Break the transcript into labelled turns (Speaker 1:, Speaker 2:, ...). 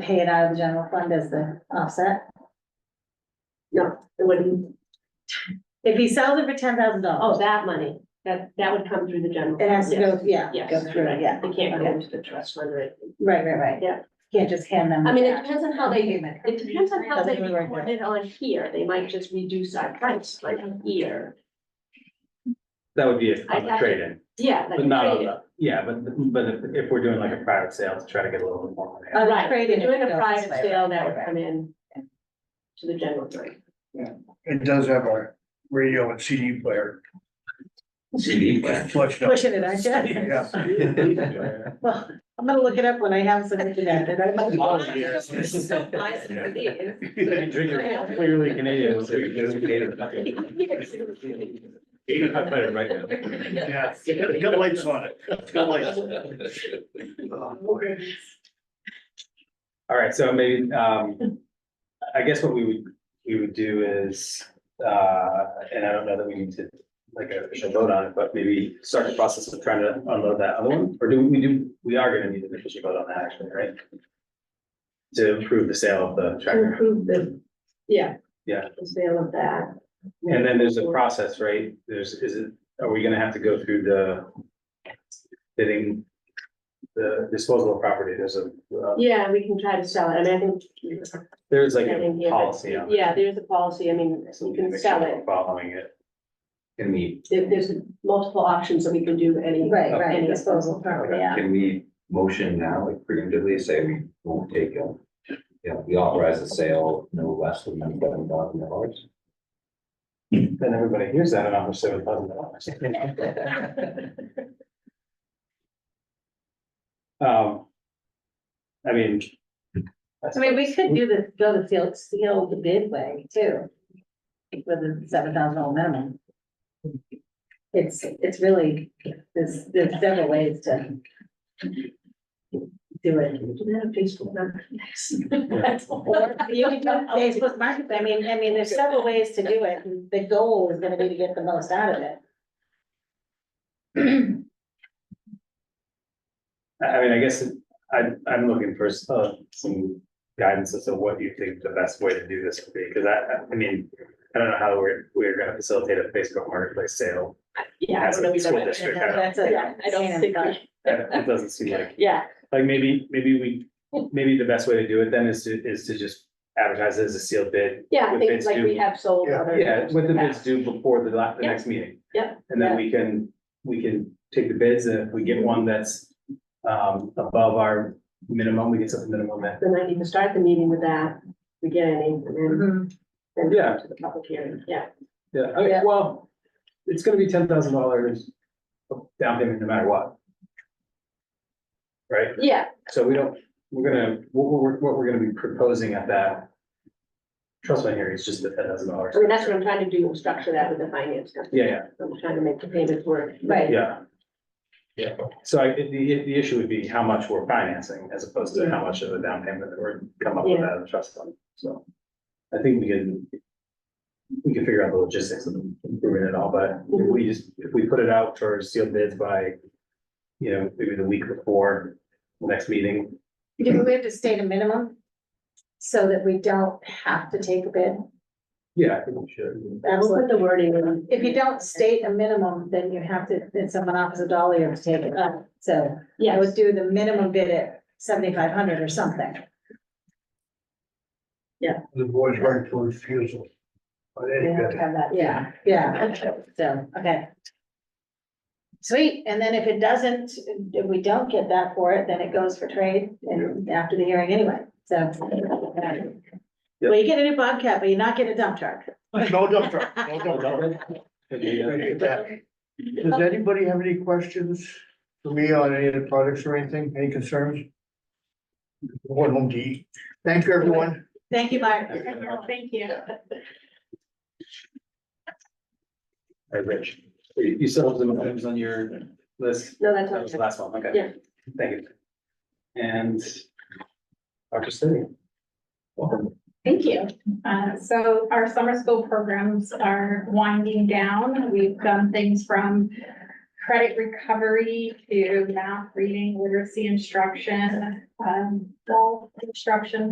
Speaker 1: pay it out of the general fund as the offset.
Speaker 2: It wouldn't,
Speaker 1: If he sells it for ten thousand dollars,
Speaker 2: oh, that money, that, that would come through the general.
Speaker 1: it has to go, yeah,
Speaker 2: Oh. Yes,
Speaker 1: go through,
Speaker 2: right.
Speaker 1: yeah,
Speaker 2: It can't go into the trust fund, right?
Speaker 1: right, right, right.
Speaker 2: Yeah.
Speaker 1: Can't just hand them.
Speaker 2: I mean,
Speaker 1: the
Speaker 2: it
Speaker 1: cash.
Speaker 2: depends on how they-
Speaker 1: Payment.
Speaker 2: It depends on how they
Speaker 1: Doesn't work.
Speaker 2: record it on here, they might just reduce our price like here,
Speaker 3: That would be a-
Speaker 2: I'd
Speaker 3: on
Speaker 2: have
Speaker 3: the
Speaker 2: to-
Speaker 3: trade-in,
Speaker 2: yeah. like
Speaker 3: but not on
Speaker 2: trade it.
Speaker 3: the, yeah, but, but if, if we're doing like a private sale, to try to get a little bit more money.
Speaker 1: Uh,
Speaker 2: Right,
Speaker 1: Trade
Speaker 2: if
Speaker 1: it,
Speaker 2: you're doing
Speaker 1: it
Speaker 2: a
Speaker 1: goes
Speaker 2: private
Speaker 1: this way,
Speaker 2: sale, that
Speaker 1: right,
Speaker 2: would
Speaker 1: right.
Speaker 2: come in to the general fund.
Speaker 4: It does have a radio and CD player.
Speaker 3: CD
Speaker 4: Flushed out.
Speaker 1: Pushing it, aren't you?
Speaker 4: Yeah.
Speaker 1: Well, I'm gonna look it up when I have some internet that I might.
Speaker 3: Oh, yeah.
Speaker 2: So nice for these.
Speaker 3: Clearly Canadian. so you can get it right now.
Speaker 4: Yeah, it's got lights on it. It's got lights.
Speaker 3: All right, so maybe, um, I guess what we would, we would do is, uh, and I don't know that we need to like an official vote on it, but maybe start the process of trying to unload that other one, or do we do, we are gonna need an official vote on that actually, right? To approve the sale of the tractor.
Speaker 2: Improve the, yeah.
Speaker 3: Yeah.
Speaker 2: The sale of that.
Speaker 3: And then there's a process, right? There's, is it, are we gonna have to go through the bidding, the disposal of property? There's a, uh,
Speaker 2: Yeah, we can try to sell it, I mean, I think.
Speaker 3: there's like a policy on it.
Speaker 2: Yeah, there's a policy, I mean,
Speaker 3: So
Speaker 2: you
Speaker 3: we can
Speaker 2: can
Speaker 3: make
Speaker 2: sell
Speaker 3: sure we're
Speaker 2: it,
Speaker 3: following it. Can we,
Speaker 2: There- there's multiple options that we can do any.
Speaker 1: Right, right,
Speaker 2: Any
Speaker 1: disposal
Speaker 2: disposal.
Speaker 1: property, yeah.
Speaker 5: Can we motion now, like preemptively say we won't take a, you know, we authorize the sale no less than ninety-seven thousand dollars?
Speaker 3: then everybody hears that and I'm seven thousand dollars. Um. I mean.
Speaker 1: I mean, we could do the, go the field, seal the bid way too. With a seven thousand dollar minimum. It's, it's really, there's, there's several ways to. Do it.
Speaker 2: Do that on Facebook, not- That's all.
Speaker 1: Or you can do Facebook market, I mean, I mean, there's several ways to do it, and the goal is gonna be to get the most out of it.
Speaker 3: I, I mean, I guess I, I'm looking for s- uh, some guidance as to what you think the best way to do this would be, because I, I- I mean, I don't know how we're, we're gonna facilitate a Facebook marketplace sale.
Speaker 2: Yeah, I
Speaker 3: As
Speaker 2: don't
Speaker 3: a
Speaker 2: know. we don't
Speaker 3: school
Speaker 2: have-
Speaker 3: district, I don't-
Speaker 1: That's a-
Speaker 2: Yeah, I don't think, we-
Speaker 3: That- It doesn't seem like,
Speaker 2: yeah,
Speaker 3: like maybe, maybe we, maybe the best way to do it then is to, is to just advertise it as a sealed bid.
Speaker 2: yeah, I
Speaker 3: With
Speaker 2: think
Speaker 3: bids
Speaker 2: like we
Speaker 3: due-
Speaker 2: have sold
Speaker 4: Yeah.
Speaker 2: other.
Speaker 3: Yeah, with the bids
Speaker 2: Yeah.
Speaker 3: due before the la, the
Speaker 2: Yeah.
Speaker 3: next meeting.
Speaker 2: Yeah.
Speaker 3: And then we can, we can take the bids, and if we get one that's um above our minimum, we get something minimum that,
Speaker 2: Then I need to start the meeting with that, we get any, and then, then
Speaker 3: Mm-hmm. Yeah.
Speaker 2: to the public hearing, yeah.
Speaker 3: yeah, I mean,
Speaker 1: Yeah.
Speaker 3: well, it's gonna be ten thousand dollars down payment no matter what. Right,
Speaker 2: Yeah,
Speaker 3: so we don't, we're gonna, what we're, what we're gonna be proposing at that trust fund here is just the ten thousand dollars.
Speaker 2: I mean, that's what I'm trying to do, structure that with the finance company.
Speaker 3: Yeah, yeah.
Speaker 2: I'm trying to make the payments work.
Speaker 1: Right.
Speaker 3: Yeah. Yeah, so I, the, the issue would be how much we're financing as opposed to how much of a down payment that we're come up with out of the trust fund, so. I think we can. We can figure out the logistics of improving it all, but if we just, if we put it out for sealed bids by. You know, maybe the week before the next meeting,
Speaker 1: Do we have to state a minimum? So that we don't have to take a bid?
Speaker 3: yeah, I think we should.
Speaker 2: We'll put the wording in.
Speaker 1: If you don't state a minimum, then you have to, then someone offers a dollar, you have to take it up, so uh, I
Speaker 2: Yes,
Speaker 1: would do the minimum bid at seventy-five hundred or something.
Speaker 4: The boys right to refusal. But
Speaker 2: we have to
Speaker 4: anyway,
Speaker 2: have that, yeah.
Speaker 1: Yeah, yeah, so, okay. Sweet, and then if it doesn't, if we don't get that for it, then it goes for trade and after the hearing anyway, so. Well, you get a new Bobcat, but you're not getting a dump truck.
Speaker 4: No dump truck, no dump truck. Does anybody have any questions for me on any of the products or anything, any concerns? One home to eat. Thank you, everyone.
Speaker 1: Thank you, Mark.
Speaker 2: Thank you.
Speaker 3: Hey, Rich, you you still have some items on your list?
Speaker 2: No, that's
Speaker 3: That was the
Speaker 2: okay.
Speaker 3: last one, okay.
Speaker 2: Yeah.
Speaker 3: Thank you. And Dr. Stady. Welcome.
Speaker 2: Thank you.
Speaker 6: Uh, so our summer school programs are winding down. We've done things from credit recovery to math, reading, literacy instruction, um, wall construction